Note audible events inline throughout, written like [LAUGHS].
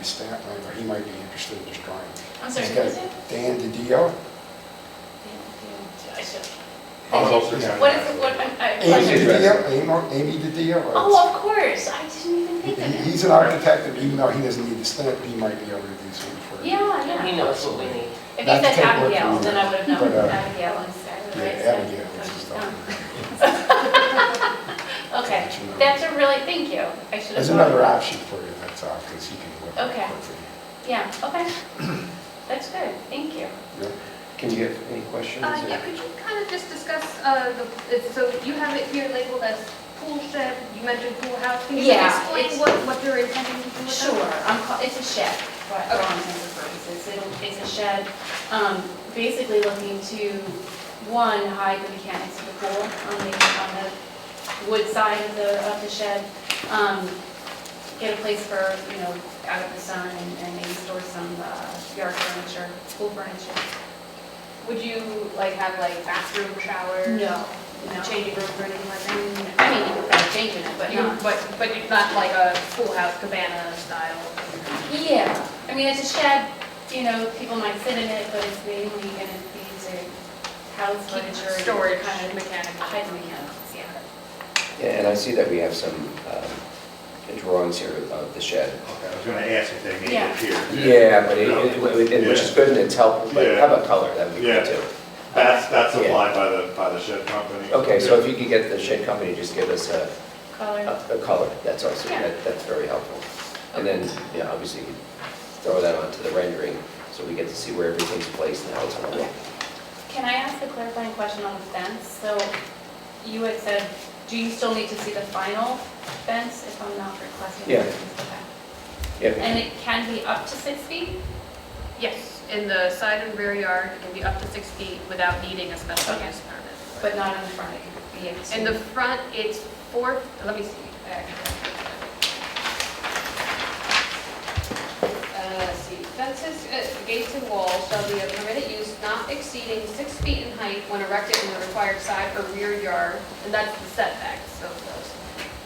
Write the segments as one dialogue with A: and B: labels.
A: a stamp line, or he might be interested in just drawing.
B: I'm sorry,
A: He's
B: who
A: got
B: is it?
A: Dan DiDio.
B: Yeah, yeah, I should-
C: I'll go through
A: Yeah.
C: that.
B: What is it, what, I'm- I,
A: Amy
C: Pleasure.
B: question.
A: DiDio, Amo- Amy DiDio. or-
B: Oh, of course, I didn't even
A: He-
B: think of it.
A: He's an architect, and even though he doesn't need the stamp, he might be able to do something for you.
B: Yeah,
D: He
B: yeah.
D: knows what we need.
B: If you
A: Not to
B: said
A: take work from
B: Abigail,
A: you,
B: then I would have
A: but,
B: known
A: uh,
B: Abigail instead,
A: Yeah,
B: right?
A: Abigail, this is
B: [LAUGHS] Okay.
A: the-
B: Okay,
A: That's another-
B: that's a really, thank you. I should have.
A: There's
B: thought
A: another
B: about
A: option for you, that's all, because he can work.
B: Okay.
A: work for you.
B: that. Yeah, okay. That's good, thank you.
A: Yeah.
C: Can you get any questions?
E: Uh, Yeah, could you kind of just discuss, uh, the- it's- so you have it here labeled as pool shed, you mentioned pool house. Can you
B: Yeah, it's-
E: explain what, what you're intending to do with that?
B: Sure, I'm, ca- it's a shed, for all intents and purposes, It'll- it's a shed, um, basically looking to, one, hide the mechanics of the pool on the, on the wood side of the, of the shed, um, get a place for, you know, out of the sun and and maybe store some uh, yard furniture, pool furniture.
E: Would you like have like bathroom, shower?
B: No, no. Mm,
E: Changing room or anything like that?
B: I mean, you could probably change it, but
E: You-
B: not.
E: But, but it's not like a pool house cabana style?
B: Yeah, I mean, it's a shed, you know, people might sit in it, but it's mainly gonna be to house
E: Keep
B: furniture. and
E: storage
B: Kind of
E: mechanical.
B: hide the mechanicals, yeah.
F: Yeah, and I see that we have some um, drawings here of the shed.
G: Okay, I was gonna ask if they made
B: Yeah.
G: it here.
F: Yeah, but it- it, it- which is good and it's helpful, but
G: Yeah.
F: how about color, that would be
G: Yeah.
F: good too.
G: That's, that's applied by the, by the shed company.
F: Okay, so if you could get the shed company, just give us a,
B: Color,
F: a a color, that's also,
B: Yeah.
F: that- that's very helpful. And then, yeah, obviously, throw that onto the rendering, so we get to see where everything's placed and how it's going to look.
B: can I ask a clarifying question on the fence? So you had said, do you still need to see the final fence if I'm not requesting?
F: Yeah.
B: Okay.
F: Yeah,
B: And it can be up to six feet?
E: Yes, in the side and rear yard, it can be up to six feet without needing a special
B: Okay.
E: use permit.
B: But not in the front, it could be up to.
E: In the front, it's four, let me see. Uh, let's see, fences, uh, gates and walls shall be of permitted use not exceeding six feet in height when erected in the required side or rear yard, and that's the setbacks of those.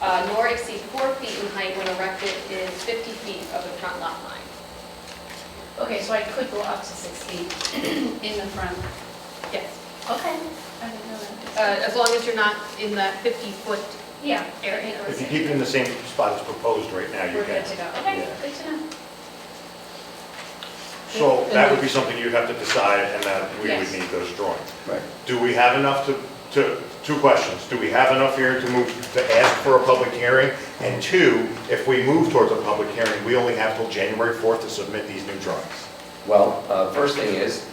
E: Uh, Nor exceed four feet in height when erected is 50 feet of the front lot line.
B: Okay, so I could go up to six feet [CLEARS THROAT] in the front.
E: Yes,
B: Okay. I didn't know
E: uh,
B: that.
E: as long as you're not in that 50-foot
B: Yeah.
E: area.
B: I think
G: If you
B: we're-
G: keep it in the same spot as proposed right now, you
B: We're
G: can.
B: good to go. Okay,
G: Yeah.
B: good to know.
G: So that would be something you'd have to decide, and that we
B: Yes.
G: would need those drawings.
F: right.
G: Do we have enough to, to, two questions, do we have enough here to move, to ask for a public hearing? And two, if we move towards a public hearing, we only have till January 4th to submit these new drawings.
F: Well, uh, first thing is,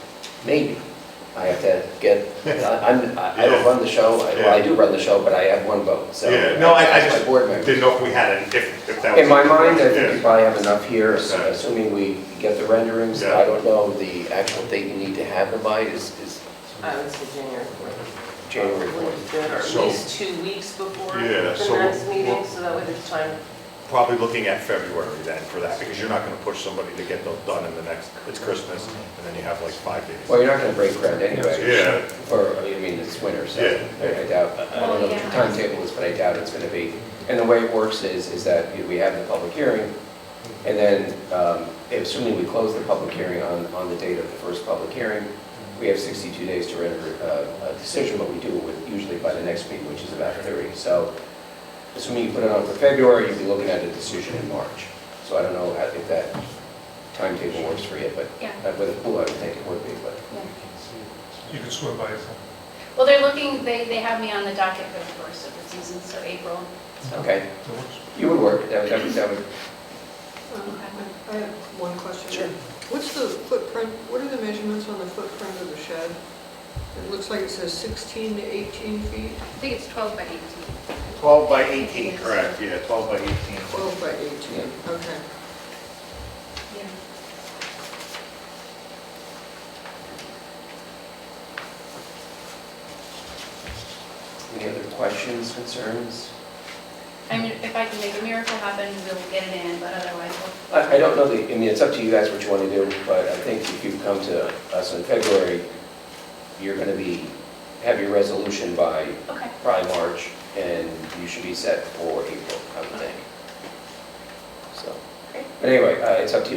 F: maybe. I have to get, I'm, I I don't run the show, I- well, I do run the show, but I have one vote, so.
G: Yeah, no, I, I
F: that's
G: just
F: my board member.
G: didn't know if we had, it, if, if that was.
F: In my mind, I think
G: Yeah.
F: we probably have enough here, ass-
G: Okay.
F: assuming we get the renderings.
G: Yeah.
F: I don't know, the actual date you need to have them by is, is
D: I would say January 4th.
F: January
D: Would
F: 4th.
D: be good, Or at
G: So-
D: least two weeks before
G: Yeah,
D: the
G: so
D: next
G: we'll-
D: meeting,
G: we'll-
D: so that way there's time.
G: Probably looking at February then for that, because you're not gonna push somebody to get those done in the next, it's Christmas, and then you have like five days.
F: Well, you're not going to break ground anyway.
G: Yeah,
F: Or, I mean, it's winter, so
G: Yeah.
F: I I doubt, I don't know what the
B: Well, yeah.
F: timetable is, but I doubt it's going to be. And the way it works is, is that you know, we have the public hearing, and then, um, assuming we close the public hearing on, on the date of the first public hearing, we have 62 days to render uh, a decision, but we do it with- usually by the next meeting, which is about 30. So assuming you put it on for February, you'd be looking at a decision in March. So I don't know how- if that timetable works for you, but
B: Yeah.
F: uh, with a pool, I would think it would be, but.
H: You could swim by yourself.
B: Well, they're looking, they, they have me on the docket for the first of the season, so April. so-
F: Okay,
H: That works.
F: you would work, that would, that would- that would,
B: Um, okay.
I: I have one question.
F: Sure.
I: What's the footprint, what are the measurements on the footprint of the shed? It looks like it says 16 to 18 feet,
E: I think it's 12 by 18.
G: 12 by 18, correct, yeah, 12 by 18.
I: 12 by 18,
F: Yeah.
I: okay.
B: Yeah.
F: any other questions, concerns?
B: I mean, if I can make a miracle happen, we'll get it in, but otherwise, we'll-
F: I, I don't know the, I mean, it's up to you guys what you want to do, but I think if you come to us in February, you're going to be, have your resolution by
B: okay.
F: probably March, and you should be set for April, I would think. So,
B: Great.
F: but anyway, uh, it's up to you.